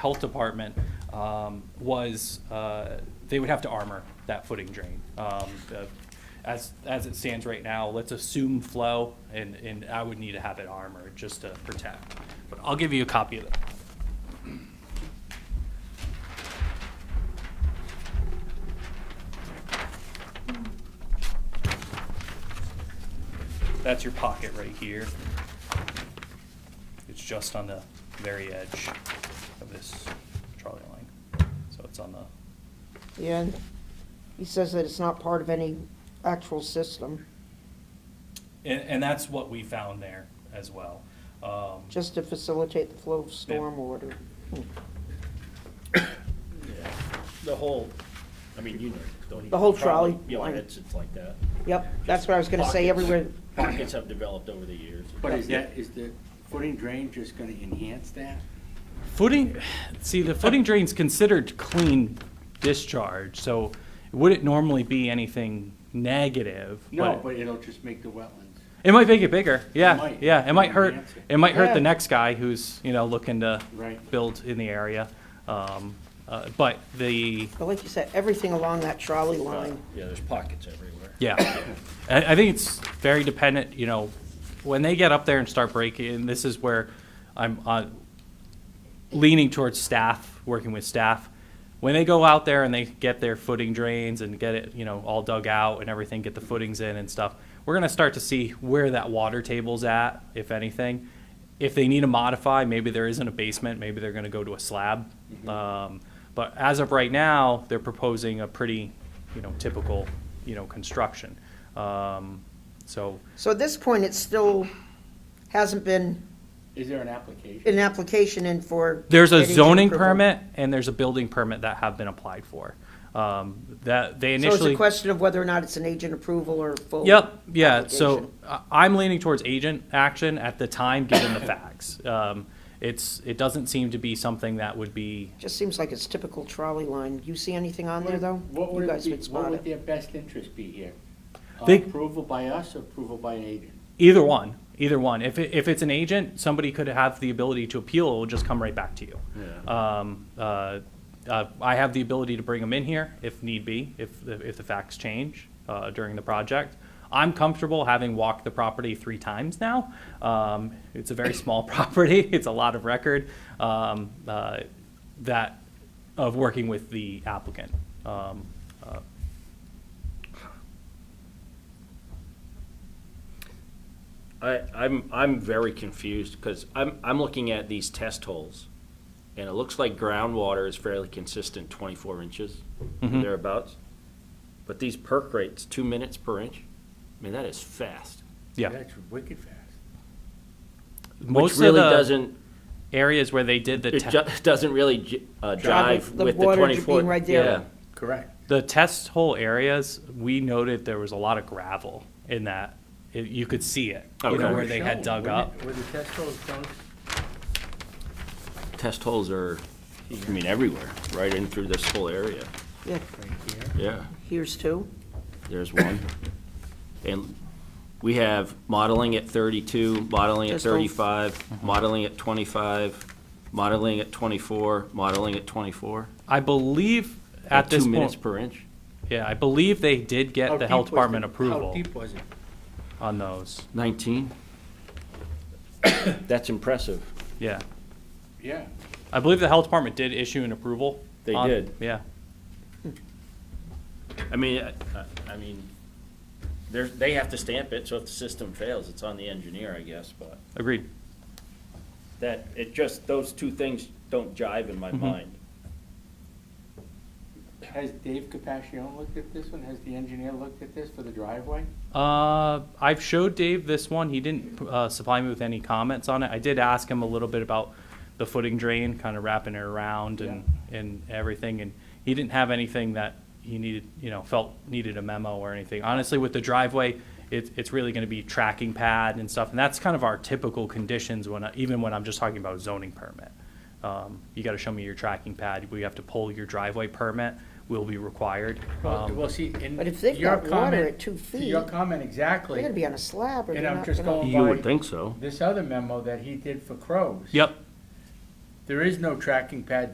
health department um, was, uh, they would have to armor that footing drain. Um, the- As, as it stands right now, let's assume flow, and, and I would need to have it armored just to protect. But I'll give you a copy of it. That's your pocket right here. It's just on the very edge of this trolley line. So it's on the, Yeah, and he says that it's not part of any actual system, and, and that's what we found there as well. Um, just to facilitate the flow of storm water. Yeah, the whole, I mean, you know, don't even. The whole trolley Yeah, line. like it's, it's like that. Yep, that's what I was gonna say, Pockets- everywhere, Pockets have developed over the years. But is that, is the footing drain just gonna enhance that? Footing, see, the footing drain's considered clean discharge, so would it normally be anything negative? No, but it'll just make the wetlands. It might make it bigger, yeah, might. yeah, it might hurt, Enhance it. it might hurt Yeah. the next guy who's, you know, looking to Right. build in the area. Um, uh, But the, but like you said, everything along that trolley Uh, Yeah, line, there's pockets everywhere. Yeah, I, I think it's very dependent. You know, when they get up there and start breaking, and this is where I'm uh, leaning towards staff, working with staff. When they go out there and they get their footing drains and get it, you know, all dug out and everything, get the footings in and stuff, we're gonna start to see where that water table's at, if anything. If they need to modify, maybe there isn't a basement, maybe they're gonna go to a slab. Mm-hmm. Um, but as of right now, they're proposing a pretty, you know, typical, you know, construction. Um, so, so at this point, it still hasn't been Is there an application? an application in for. There's a getting zoning approval. permit and there's a building permit that have been applied for. Um, That, they So it's a initially. question of whether or not it's an agent approval or full. Yep, yeah, so application. I- I'm leaning towards agent action at the time, given the facts. Um, It's, it doesn't seem to be something that would be, Just seems like it's typical trolley line. You see anything on there, though? What You would guys it be, would what spot would it. their best interest be here? Uh, They- Approval by us, or approval by an agent? either one, either one. If, it- if it's an agent, somebody could have the ability to appeal, it'll just come right back to you. Um, uh, uh, I have the ability to bring them in here if need be, if, the- if the facts change uh, during the project. I'm comfortable having walked the property three times now. Um, It's a very small property, it's a lot of record um, uh, that, of working with the applicant. Um, uh, I, I'm, I'm very confused, because I'm, I'm looking at these test holes, and it looks like groundwater is fairly consistent, twenty-four inches, Mhm. thereabouts. But these perk rates, two minutes per inch, I mean, that is fast, Yeah. That's wicked fast. Most which of really the doesn't, Areas where they did the it te- ju- doesn't really j- uh, Drive jive the with the water twenty-four. being right there. Yeah. Correct. The test hole areas, we noted there was a lot of gravel in that. It- You could see it, you know, Okay. where they had dug up. Where the test holes dug? Test holes are, I mean, everywhere, right in through this whole area, Yeah, Right here. yeah. here's two. There's one. And we have modeling at thirty-two, modeling at Just all- thirty-five, modeling at twenty-five, modeling at twenty-four, modeling at twenty-four. I believe at this Two minutes point, per inch. yeah, I believe they did How get the deep health was department How approval deep was it? on those. Nineteen. That's impressive. Yeah. Yeah. I believe the health department did issue an approval. They on- did. Yeah. I mean, I, I- I mean, they're, they have to stamp it, so if the system fails, it's on the engineer, I guess, but Agreed. that, it just, those two things don't jive in my mind. Has Dave Capacione looked at this one? Has the engineer looked at this for the driveway? Uh, I've showed Dave this one. He didn't uh, supply me with any comments on it. I did ask him a little bit about the footing drain, kind of wrapping it around and, and everything. And he didn't have anything that he needed, you know, felt needed a memo or anything. Honestly, with the driveway, it's, it's really going to be tracking pad and stuff. And that's kind of our typical conditions when, I- even when I'm just talking about zoning permit. Um, you got to show me your tracking pad. We have to pull your driveway permit. Will be required. Well, Um, well, see, and But if they've your got water comment- at two to Your feet, comment They're exactly, gonna be on a slab or And they're I'm not just gonna- going- You would think so. this other memo that he did for Crows. Yep. There is no tracking pad